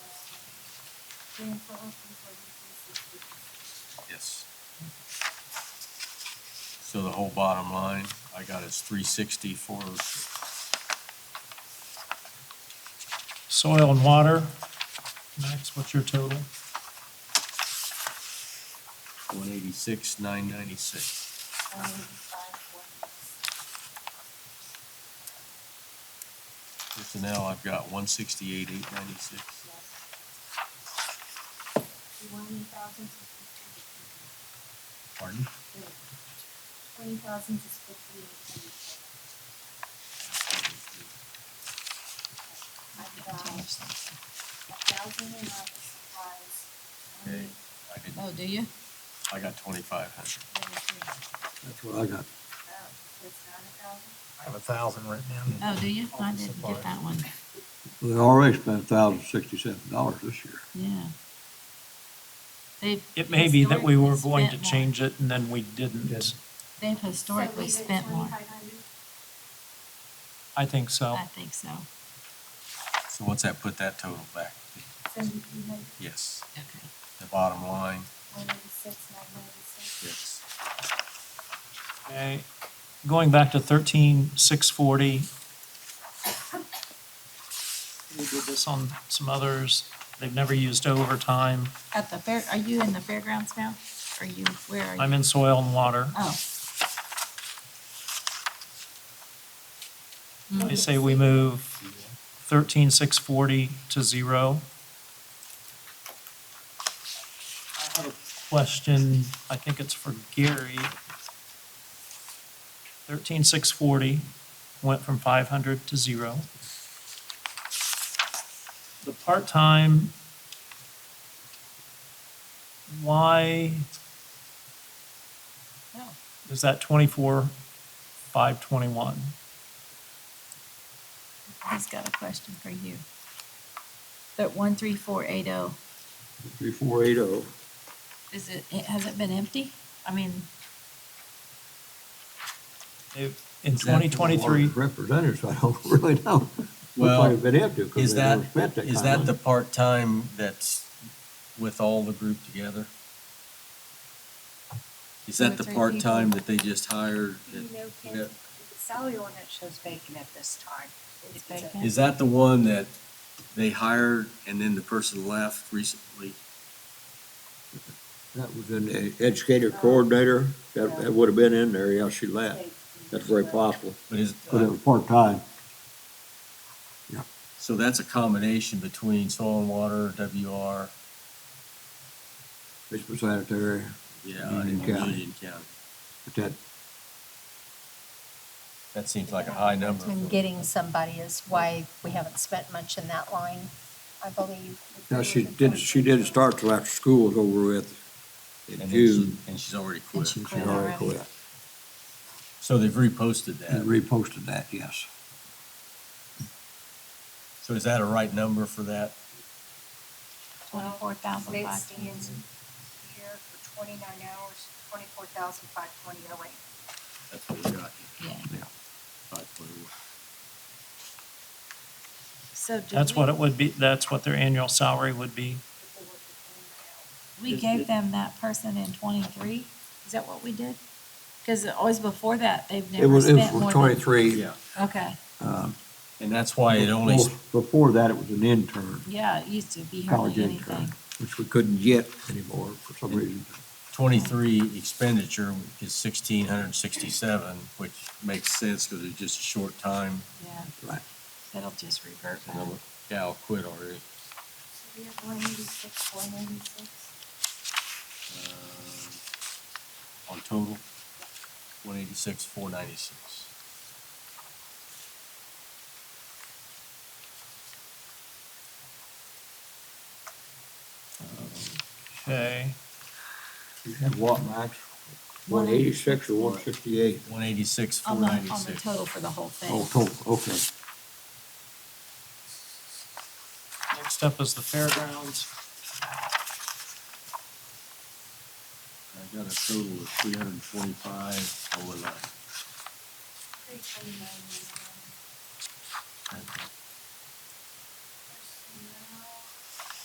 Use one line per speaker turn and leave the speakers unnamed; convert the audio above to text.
Yes. So the whole bottom line, I got is three sixty, four oh six.
Soil and water, Max, what's your total?
One eighty-six, nine ninety-six. Personnel, I've got one sixty-eight, eight ninety-six. Pardon?
Twenty thousand is fifty-eight twenty-seven. I've got a thousand in office supplies.
Okay, I didn't,
Oh, do you?
I got twenty-five hundred.
That's what I got.
It's not a thousand.
I have a thousand written in.
Oh, do you? I didn't get that one.
They already spent thousand sixty-seven dollars this year.
Yeah. They've.
It may be that we were going to
historically spent
change it and then we didn't.
more. They've historically spent more.
I think so.
I think so.
So what's that, put that total back?
Seventy-three hundred,
Yes,
Okay.
the bottom line,
one eighty-six, nine ninety-six.
yes.
Okay, going back to thirteen six forty. We did this on some others. They've never used overtime.
At the fair, are you in the fairgrounds now? Are you, where are you?
I'm in soil and water.
Oh, Hmm.
They say we move thirteen six forty to zero. I have a question, I think it's for Gary. Thirteen six forty went from five hundred to zero. The part-time, why
no.
is that twenty-four five twenty-one?
He's got a question for you. That one, three, four, eight, oh,
Three, four, eight, oh.
is it, it- has it been empty? I mean,
In
Is that for
twenty
the
twenty-three.
Representatives, I don't really know. Looks
Well,
like a bit empty because
Is
they
that,
never spent that kind of money.
is that the part-time that's with all the group together? Is
Two or
that the
three
part-time
people.
that they just hired?
You know, Ken,
Yeah.
the salary ordinance shows vacant at this time.
it's
It's a-
vacant.
Is that the one that they hired and then the person left recently?
That was in the educator coordinator. That, that would have been in there, yeah, she left. That's very possible.
But is,
But it was part-time.
Uh, so that's a combination between soil and water, WR,
Basically sanitary,
yeah,
Union
and
County.
Union County.
but that,
That seems like a high number.
And getting somebody is why we haven't spent much in that line, I believe.
now she didn't, she didn't start till after school was over with in
And then she-
June.
And she's already
And
quit.
she
She
quit
already
already.
quit.
So they've reposted
And
that.
reposted that, yes.
So is that a right number for that?
Twenty-four thousand
It
five
stands here for twenty-nine hours, twenty-four thousand five twenty oh eight.
That's what we got.
Yeah.
Five point one.
So did
That's
we-
what it would be, that's what their annual salary would be.
We gave them that person in twenty-three, is that what we did? Because always before that, they've
It
never
was, it was
spent more
for
than.
twenty-three. um,
Yeah,
Okay,
and that's why it only,
Before- Before that, it was an intern,
yeah, it used to be
college
hardly anything.
intern, which we couldn't get anymore for some reason.
twenty-three expenditure is sixteen hundred and sixty-seven, which makes sense because it's just a short time.
Yeah,
Right.
that'll just revert back.
Another gal quit already.
So we have one eighty-six, one eighty-six.
uh, On total, one eighty-six, four ninety-six.
Okay,
You had what, Max? One eighty-six or one sixty-eight?
One eighty-six, four
On the, on the
ninety-six.
total for the whole
Oh,
thing.
total, okay.
next up is the fairgrounds.
I got a total of three hundred and forty-five, oh eleven.
Three twenty-nine, one eleven.
That's
uh,